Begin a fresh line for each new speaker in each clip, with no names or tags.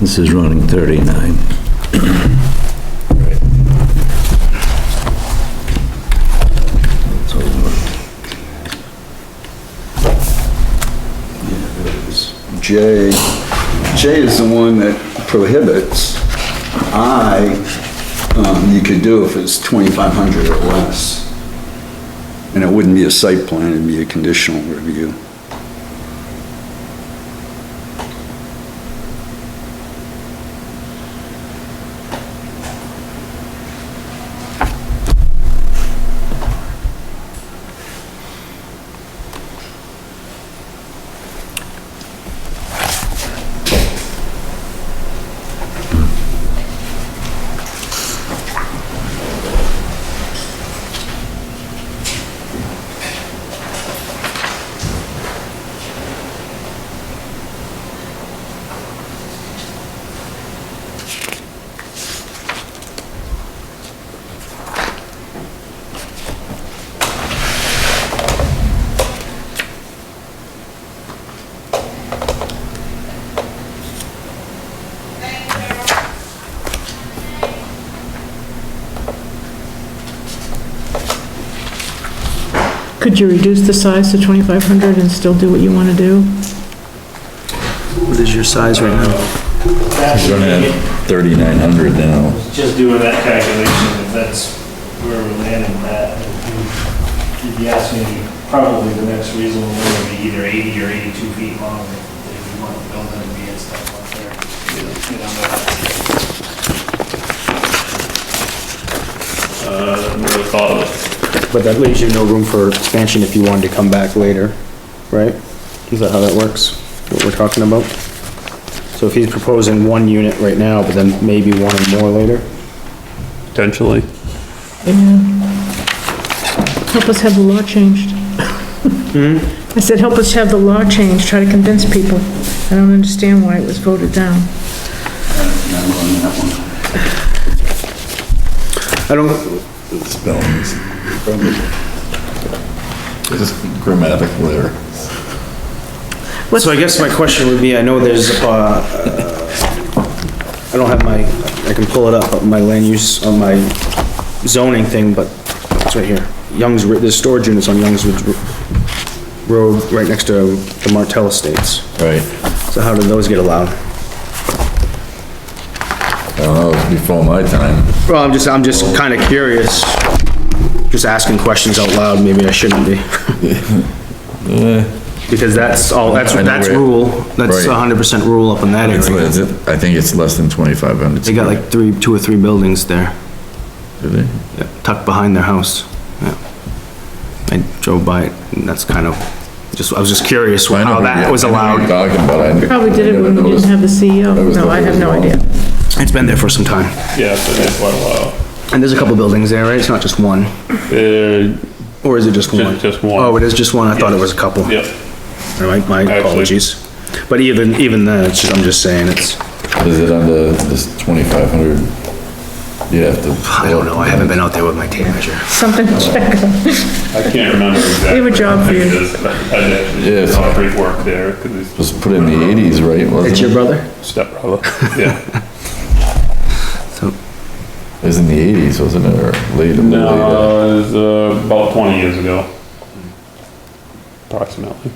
This is running 39.
J, J is the one that prohibits. I, um, you could do if it's twenty-five hundred or less. And it wouldn't be a site plan, it'd be a conditional review.
Could you reduce the size to 2,500 and still do what you want to do?
What is your size right now?
That's
We're gonna have thirty-nine hundred now.
just doing that calculation, if that's where we're landing at. If you- If you ask me, probably the next reasonable one would be either 80 or 82 feet long, if you want to build it and be and stuff up there. You know,
Uh, I haven't really thought of it.
But that leaves you no room for expansion if you wanted to come back later, right? Is that how that works, what we're talking about? So if he's proposing one unit right now, but then maybe one or more later?
Potentially.
Yeah. Help us have the law changed.
Hmm?
I said, help us have the law changed, try to convince people. I don't understand why it was voted down.
And I'm on that one.
I don't,
Spellings. Just grammatical error.
so I guess my question would be, I know there's, uh, I don't have my, I can pull it up, but my land use, on my zoning thing, but it's right here. Young's, Ri- there's storage units on Young's Ridge Road, right next to the Martell Estates.
Right.
So how did those get allowed?
Well, that was before my time.
Well, I'm just, I'm just kinda curious, just asking questions out loud, maybe I shouldn't be. Because that's all, that's,
I know
that's
where-
rule, that's
Right.
hundred percent rule up in that
It's,
area.
less- I think it's less than twenty-five hundred.
They got like three, two or three buildings there, yeah, tucked behind their house, yeah. I drove by it, and that's kind of, just, I was just curious
I know
how
who
Oh, that
you-
was
I know who you're
allowed.
Talking about. I-
Probably did it when we didn't have the CEO.
was
No, I have no
the-
idea.
It's been there for some time.
Yeah, it's been there for a while.
And there's a couple buildings there, right? It's not just one,
Uh,
or is it just one?
just one.
Oh, it is just one, I thought it was a couple.
yep,
My, my apologies. But even, even then, it's, I'm just saying, it's,
Is it under this twenty-five hundred? You have to.
I don't know, I haven't been out there with my tape measure.
Something to check on.
I can't remember exactly.
have a job
what
for you.
it is, but I
Yeah,
did
it's-
concrete work there, because
Was put in the eighties, right? wasn't
It's your
it?
brother?
it's stepbrother, yeah.
It was in the eighties, wasn't it, or late? late-
No, it was uh, about 20 years ago. Approximately.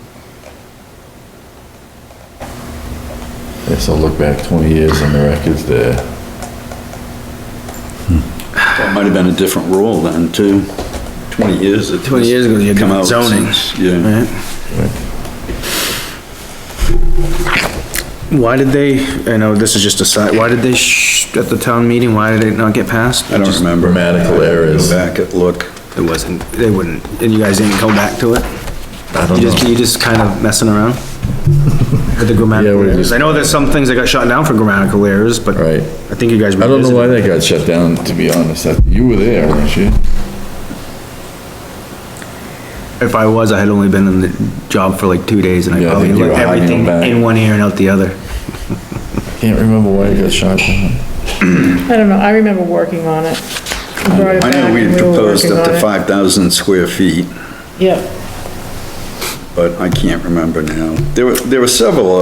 Yes, I'll look back twenty years on the records there.
That might have been a different rule then too. Twenty years. it
20 years ago, you had
come out
zoning.
since- Yeah.
Why did they, I know this is just a side, why did they, sh- at the town meeting, why did it not get passed?
I don't remember.
Grammatical errors.
Go back and look.
It wasn't, they wouldn't, and you guys didn't go back to it?
I
You
don't
just,
know.
you just kind of messing around? With the grammatical
Yeah, we're
errors.
just-
I know there's some things that got shot down for grammatical errors, but
Right.
I think you guys.
I don't know why
revisited
that got shut down, to be honest. I- You were there, weren't you?
it. If I was, I had only been in the job for like two days and I
Yeah, I
probably
think you
let
were hiding
everything
them back.
in one ear and out the other.
Can't remember why it got shut down.
I don't know, I remember working on it. We brought it
I
back
know we
and
had
were
proposed
working
up
on
to
it.
five thousand square feet,
Yep.
but I can't remember now. There were, there were several